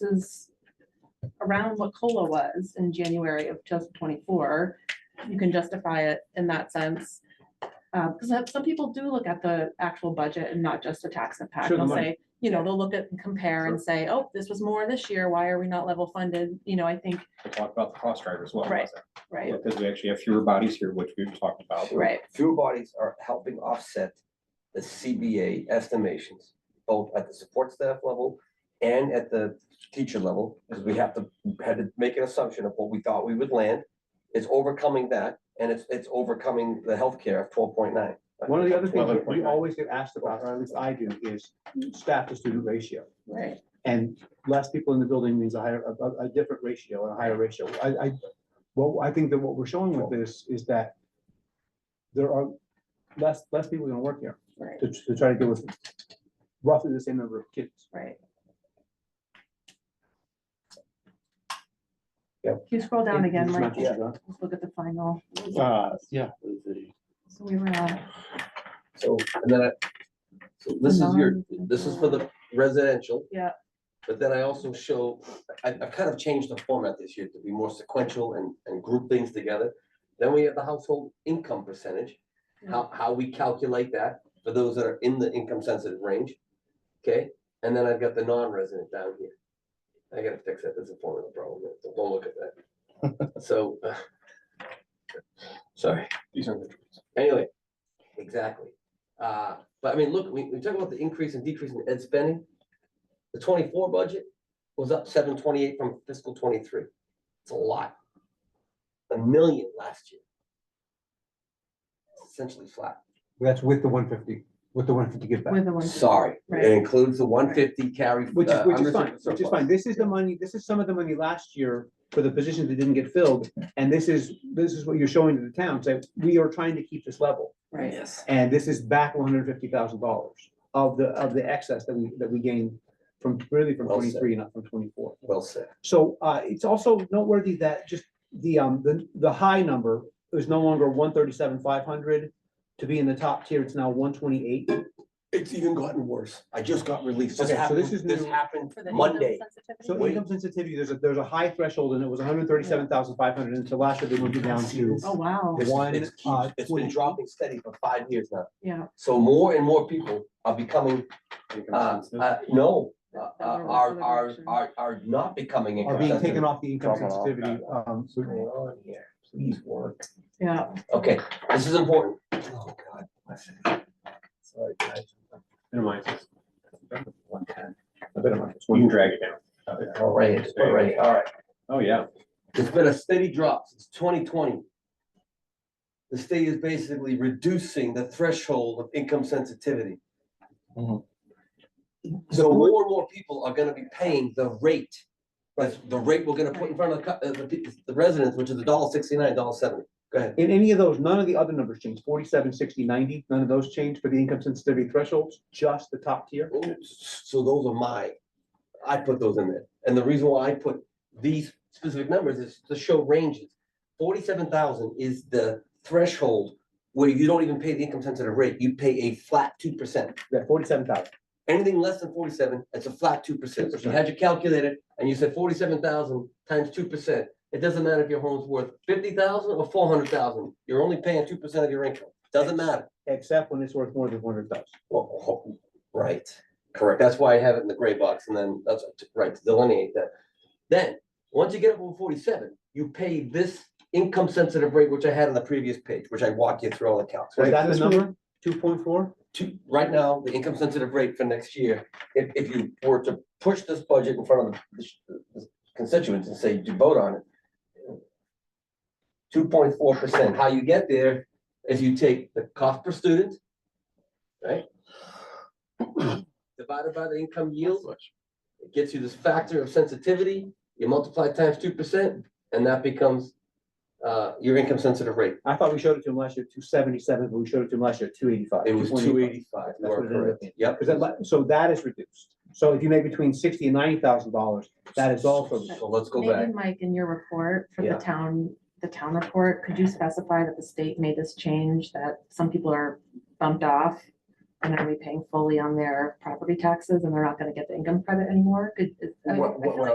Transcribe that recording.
is around what COLA was in January of 2024, you can justify it in that sense. Because some people do look at the actual budget and not just the tax impact. Sure, the They'll money. say, you know, they'll look at and compare and say, oh, this was more this year. Why are we not level funded? You know, I think, to talk about the cost driver as well. Right, wasn't it? right, Because we actually have fewer bodies here, which we've talked about. right, fewer bodies are helping offset the CBA estimations, both at the support staff level and at the teacher level, because we have to, had to make an assumption of what we thought we would land. It's overcoming that, and it's, it's overcoming the healthcare of twelve point nine. One of the other things that we 11.9. always get asked about, or at least I do, is staff to student ratio. right. And less people in the building means a higher, a- a, a different ratio and a higher ratio. I, I, well, I think that what we're showing with this is that there are less, less people gonna work here Right, to, to try to deal with roughly the same number of kids. right. Yep. Can you scroll down again, It's Mike? not just that. Let's look at the final. Uh, yeah. So we were at. So, and then I, so this is your, this is for the residential. Yeah. But then I also show, I, I've kind of changed the format this year to be more sequential and, and group things together. Then we have the household income percentage, how, how we calculate that for those that are in the income sensitive range. Okay, and then I've got the non-resident down here. I gotta fix that, there's a formula problem, there, don't look at that. So. uh, Sorry. These are the- Anyway, exactly. Uh, but I mean, look, we, we talk about the increase and decrease in ed spending. The twenty-four budget was up seven twenty-eight from fiscal twenty-three. It's a lot. A million last year. It's Essentially flat. That's with the one fifty, with the one fifty give back. With the one. Sorry, Right. it includes the one fifty carry. Which is, uh, which is unrestricted fine, which is surplus. fine. This is the money, this is some of the money last year for the positions that didn't get filled. And this is, this is what you're showing to the town, say, we are trying to keep this level. Right. Yes. And this is back one hundred fifty thousand dollars of the, of the excess that we, that we gained from, really from Well said. twenty-three and not from twenty-four. Well said. So, uh, it's also noteworthy that just the, um, the, the high number is no longer one thirty-seven, five hundred. To be in the top tier, it's now one twenty-eight. It's even gotten worse. I just got released. This Okay, so happened, this is this new. happened For the Monday. income sensitivity? So income sensitivity, there's a, there's a high threshold and it was hundred thirty-seven thousand five hundred and so last year they moved it down to. Oh, wow, This- One, it's keeps- uh, It's been 20. dropping steady for five years now. yeah. So more and more people are becoming, uh, uh, no, uh, uh, are, are, are, are not becoming. Are being taken off. off the income Dropping off, sensitivity, um, Mm. so- Going on here, please work. Yeah, Okay, this is important. Oh, God. bless it. Sorry, guys. Never mind. it's- One time. I bet it might- You can drag it down. All right, all right, all right. Oh, yeah. It's been a steady drop since twenty twenty. The state is basically reducing the threshold of income sensitivity. Mhm. Mm-hmm. So more and more people are gonna be paying the rate, right, the rate we're gonna put in front of the, cu- uh, the, pe- the residents, which is a dollar sixty-nine, dollar seventy. Go ahead. In any of those, none of the other numbers changed, forty-seven, sixty, ninety, none of those changed for the income sensitivity thresholds, just the top tier. Oh, So those are my, I put those in there. And the reason why I put these specific numbers is to show ranges. Forty-seven thousand is the threshold where you don't even pay the income sensitive rate. You pay a flat two percent. Yeah, forty-seven thousand. Anything less than forty-seven, it's a flat two percent. If you had your calculator and you said forty-seven thousand times two percent, it doesn't matter if your home's worth fifty thousand or four hundred thousand. You're only paying two percent of your income. Doesn't matter. Except when it's worth more than one hundred thousand. Well, ho- Right, correct. That's why I have it in the gray box and then that's t- right to delineate that. Then, once you get up over forty-seven, you pay this income sensitive rate, which I had on the previous page, which I walk you through all the counts. Was right? that the number? Two point four? To, right now, the income sensitive rate for next year, if, if you were to push this budget in front of the sh- the constituents and say, "Do vote on it. Two point four percent. How you get there is you take the cost per student, right? Divided by the income yield, it gets you this factor of sensitivity, you multiply times two percent, and that becomes uh, your income sensitive rate. I thought we showed it to him last year, two seventy-seven, but we showed it to him last year, two eighty-five. It was two eighty-five. That's what it ended up being. Yep. Because that, li- so that is reduced. So if you make between sixty and ninety thousand dollars, that is also. So let's go back. maybe Mike, in your report for the Yeah. town, the town report, could you specify that the state made this change, that some people are bumped off? And are we paying fully on their property taxes and they're not gonna get the income credit anymore? Could, I mean, I feel What- what- like